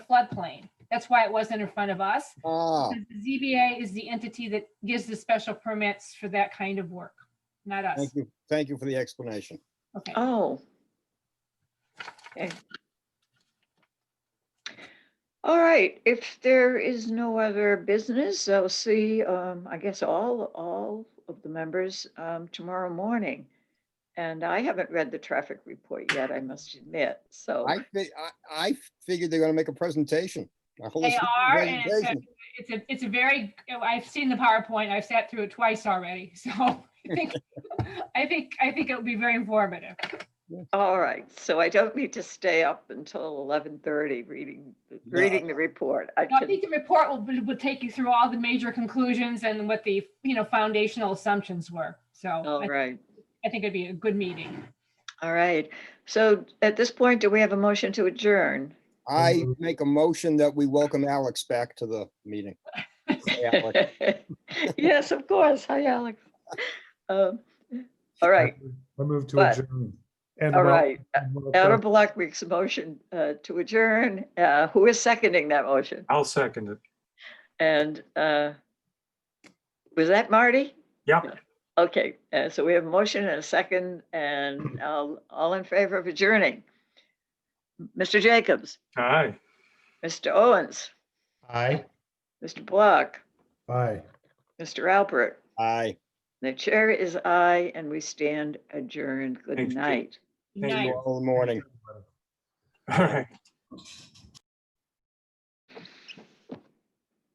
floodplain. That's why it wasn't in front of us. Ah, because The ZBA is the entity that gives the special permits for that kind of work, not us. thank you, thank you for the explanation. Okay, Oh. Okay. All right, if there is no other business, I'll see, um, I guess all, all of the members, um, tomorrow morning. And I haven't read the traffic report yet, I must admit, so. I, fi- I, I figured they're gonna make a presentation. a whole They slew of are, and it's a, presentations. it's a, it's a very, I've seen the PowerPoint. I've sat through it twice already, so I think, I think, I think it'll be very informative. All right, so I don't need to stay up until eleven thirty reading, No. reading the report. I Now, I can, think the report will, be- will take you through all the major conclusions and what the, you know, foundational assumptions were. So all I right, I think it'd be a good meeting. all right. So at this point, do we have a motion to adjourn? I make a motion that we welcome Alex back to the meeting. Hey, Alex. Yes, of course. Hi, Alex. Um, All right, I move to But- adjourn. And all well- right. and well Outer done. Block makes a motion uh, to adjourn. Uh, Who is seconding that motion? I'll second it. And uh, was that Marty? Yeah. Okay, uh, so we have a motion and a second and all all in favor of adjourning. Mr. Jacobs, Aye. Mr. Owens, Aye. Mr. Block, Bye. Mr. Alpert. Aye. The chair is aye and we stand adjourned. Thanks, Good Jim. night. Thank you. Night. Tomorrow morning. All right.